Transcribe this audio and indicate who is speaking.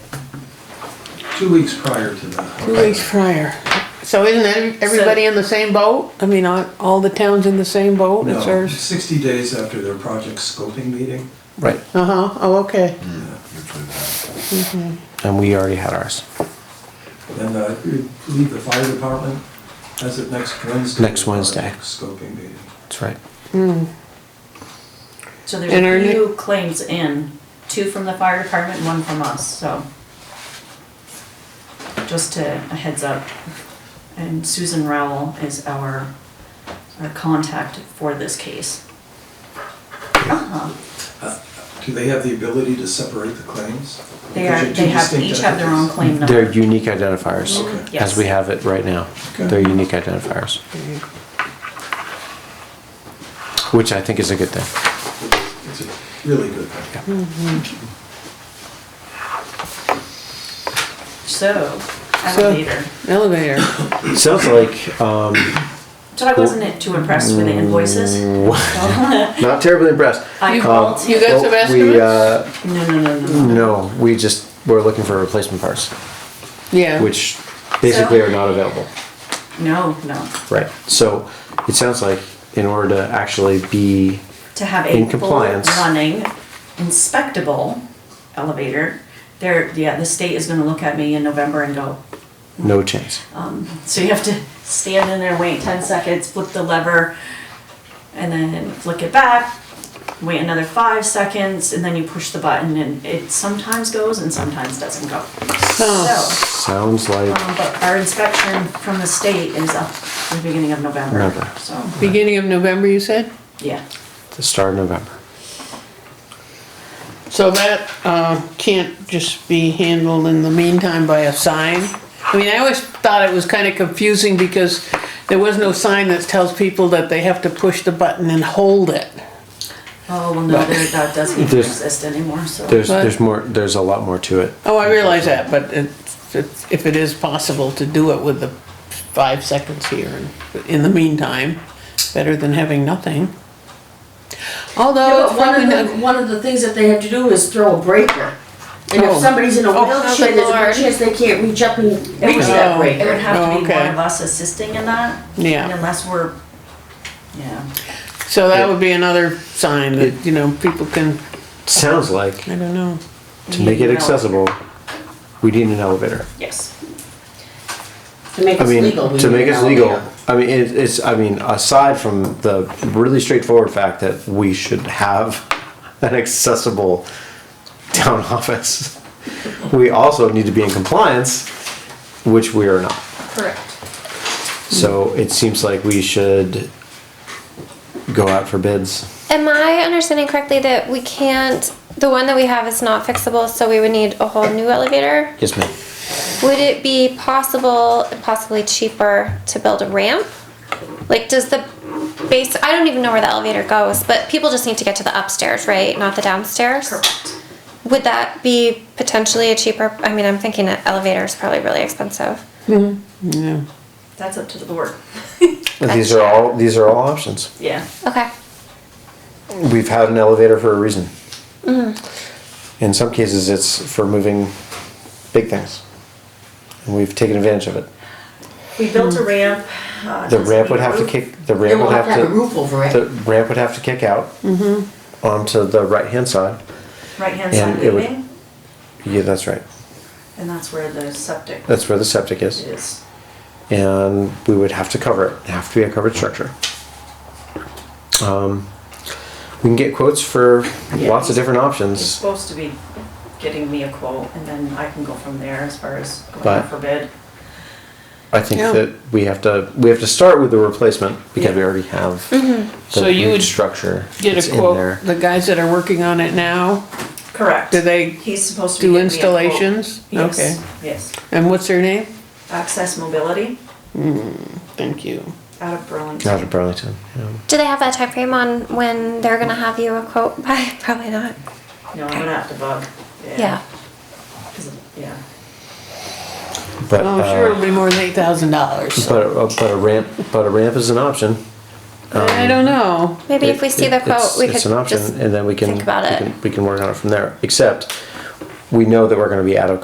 Speaker 1: two weeks prior to that.
Speaker 2: Two weeks prior.
Speaker 3: So isn't ev- everybody in the same boat?
Speaker 2: I mean, all, all the towns in the same boat, it's
Speaker 1: No,
Speaker 2: ours.
Speaker 1: sixty days after their project scoping meeting.
Speaker 4: Right,
Speaker 3: Uh-huh, oh, okay.
Speaker 5: usually that.
Speaker 4: and we already had ours.
Speaker 1: And uh, you believe the fire department has it next Wednesday.
Speaker 4: Next Wednesday.
Speaker 1: Scoping meeting.
Speaker 4: That's right.
Speaker 6: So there's
Speaker 2: And our ne-
Speaker 6: a few claims in, two from the fire department, one from us, so. Just to, a heads up. And Susan Rowell is our, our contact for this case. Uh-huh.
Speaker 1: Do they have the ability to separate the claims?
Speaker 6: They
Speaker 1: Because
Speaker 6: are,
Speaker 1: you're two
Speaker 6: they have,
Speaker 1: distinct
Speaker 6: each have their own
Speaker 1: entities.
Speaker 6: claim
Speaker 4: They're
Speaker 6: number.
Speaker 4: unique identifiers,
Speaker 1: Okay.
Speaker 4: as
Speaker 6: Yes.
Speaker 4: we have it right now. They're unique identifiers, which I think is a good thing.
Speaker 1: It's a really good thing.
Speaker 6: So,
Speaker 2: So-
Speaker 6: elevator.
Speaker 2: Elevator.
Speaker 4: Sounds like, um,
Speaker 6: So I wasn't too impressed with the invoices. No,
Speaker 4: not terribly impressed.
Speaker 6: I
Speaker 2: You-
Speaker 6: called.
Speaker 2: you got- That's
Speaker 4: Well,
Speaker 2: the
Speaker 4: we,
Speaker 2: best
Speaker 4: uh,
Speaker 6: No, no, no, no.
Speaker 4: No, we just, we're looking for replacement parts,
Speaker 2: Yeah.
Speaker 4: which basically are not available.
Speaker 6: No, no.
Speaker 4: Right, so it sounds like in order to actually be,
Speaker 6: to have
Speaker 4: In
Speaker 6: a full
Speaker 4: compliance.
Speaker 6: running, inspectable elevator, there, yeah, the state is gonna look at me in November and go,
Speaker 4: no chance.
Speaker 6: so you have to stand in there, wait ten seconds, flip the lever, and then flick it back, wait another five seconds, and then you push the button, and it sometimes goes and sometimes doesn't go.
Speaker 4: Oh.
Speaker 6: So,
Speaker 4: Sounds like,
Speaker 6: um, but our inspection from the state is up in the beginning of November,
Speaker 4: November.
Speaker 6: so,
Speaker 2: Beginning of November, you said?
Speaker 6: yeah.
Speaker 4: the start of November.
Speaker 2: So that, uh, can't just be handled in the meantime by a sign? I mean, I always thought it was kinda confusing because there was no sign that tells people that they have to push the button and hold it.
Speaker 6: Oh, well, no, there, that doesn't even
Speaker 4: There's-
Speaker 6: exist anymore, so.
Speaker 4: There's,
Speaker 2: What?
Speaker 4: there's more, there's a lot more to it.
Speaker 2: Oh, I realize that, but it's, it's, if it is possible to do it with the five seconds here and in the meantime, better than having nothing. Although
Speaker 7: Yeah,
Speaker 2: Oh, it's
Speaker 7: but one
Speaker 2: probably
Speaker 7: of the,
Speaker 2: not,
Speaker 7: one of the things that they have to do is throw a breaker. And
Speaker 2: Oh.
Speaker 7: if somebody's in a
Speaker 2: Oh, help
Speaker 7: wheelchair, there's a
Speaker 2: Lord.
Speaker 7: good chance they can't reach up and reach
Speaker 2: Oh.
Speaker 7: that
Speaker 6: It would
Speaker 7: breaker.
Speaker 6: have
Speaker 2: Oh,
Speaker 6: to be
Speaker 2: okay.
Speaker 6: one of us assisting in that.
Speaker 2: Yeah.
Speaker 6: and Unless we're, yeah.
Speaker 2: so that would be another sign that, you know, people can,
Speaker 4: Sounds like,
Speaker 2: I don't know.
Speaker 4: to make it
Speaker 6: Yeah.
Speaker 4: accessible, we need an elevator.
Speaker 6: Yes.
Speaker 7: To make
Speaker 4: I
Speaker 7: us
Speaker 4: mean,
Speaker 7: legal. we
Speaker 4: to
Speaker 7: need
Speaker 4: make
Speaker 7: an
Speaker 4: us legal,
Speaker 7: elevator.
Speaker 4: I mean, it- it's, I mean, aside from the really straightforward fact that we should have an accessible town office, we also need to be in compliance, which we are not.
Speaker 6: Correct.
Speaker 7: Hmm.
Speaker 4: So it seems like we should go out for bids.
Speaker 8: Am I understanding correctly that we can't, the one that we have is not fixable, so we would need a whole new elevator?
Speaker 4: Yes, ma'am.
Speaker 8: Would it be possible, possibly cheaper, to build a ramp? Like, does the base, I don't even know where the elevator goes, but people just need to get to the upstairs, right? Not the downstairs?
Speaker 6: Correct.
Speaker 8: Would that be potentially a cheaper, I mean, I'm thinking an elevator is probably really expensive.
Speaker 6: That's up to the board.
Speaker 4: These are all, these are all options.
Speaker 6: Yeah.
Speaker 8: Okay,
Speaker 4: We've had an elevator for a reason.
Speaker 7: Mm-hmm.
Speaker 4: In some cases, it's for moving big things. And we've taken advantage of it.
Speaker 6: We built
Speaker 2: Hmm.
Speaker 6: a ramp. uh,
Speaker 4: The
Speaker 6: doesn't
Speaker 4: ramp would
Speaker 6: need a
Speaker 4: have to
Speaker 6: roof.
Speaker 4: kick, the
Speaker 7: Then
Speaker 4: ramp
Speaker 7: we'll
Speaker 4: would
Speaker 7: have to have a
Speaker 4: have
Speaker 7: roof Mm-hmm. over
Speaker 4: to, the
Speaker 7: it.
Speaker 4: ramp would have to kick out onto the right-hand side.
Speaker 6: Right-hand
Speaker 4: and
Speaker 6: side
Speaker 4: it would-
Speaker 6: leading,
Speaker 4: Yeah, that's right.
Speaker 6: and that's where the septic
Speaker 4: That's where the septic is.
Speaker 6: is.
Speaker 4: and we would have to cover it. It'd have to be a covered structure. Um, we can get quotes for lots of different
Speaker 6: He's
Speaker 4: options,
Speaker 6: supposed to be getting me a quote, and then I can go from there as far as going
Speaker 4: But-
Speaker 6: out for bid.
Speaker 4: I think
Speaker 2: Yeah.
Speaker 4: that we have to we have to start with the replacement because we already have
Speaker 8: Mm-hmm.
Speaker 4: the
Speaker 2: So you
Speaker 4: root
Speaker 2: would
Speaker 4: structure that's
Speaker 2: Get a
Speaker 4: in there.
Speaker 2: quote, the guys that are working on it now,
Speaker 6: Correct.
Speaker 2: Do they
Speaker 6: He's supposed to be
Speaker 2: do
Speaker 6: getting me a quote.
Speaker 2: installations? Okay.
Speaker 6: Yes, yes.
Speaker 2: And what's their name?
Speaker 6: Access Mobility
Speaker 2: Thank you.
Speaker 6: out of Burlington.
Speaker 4: Out of Burlington. yeah.
Speaker 8: do they have that time frame on when they're gonna have you a quote by? Probably not,
Speaker 6: No, I'm gonna have to bug.
Speaker 8: yeah.
Speaker 6: 'Cause of- Yeah.
Speaker 4: But
Speaker 2: Oh,
Speaker 4: uh,
Speaker 2: sure, it'll be more than eight thousand dollars.
Speaker 4: but, a, but a ramp but a ramp is an option. um,
Speaker 2: I don't know.
Speaker 8: Maybe
Speaker 4: It-
Speaker 8: if we see
Speaker 4: it-
Speaker 8: the quote,
Speaker 4: it's-
Speaker 8: we
Speaker 4: It's an
Speaker 8: could
Speaker 4: option,
Speaker 8: just
Speaker 4: and then we can.
Speaker 8: think about
Speaker 4: we
Speaker 8: it.
Speaker 4: can- We can work on it from there, except we know that we're gonna be out of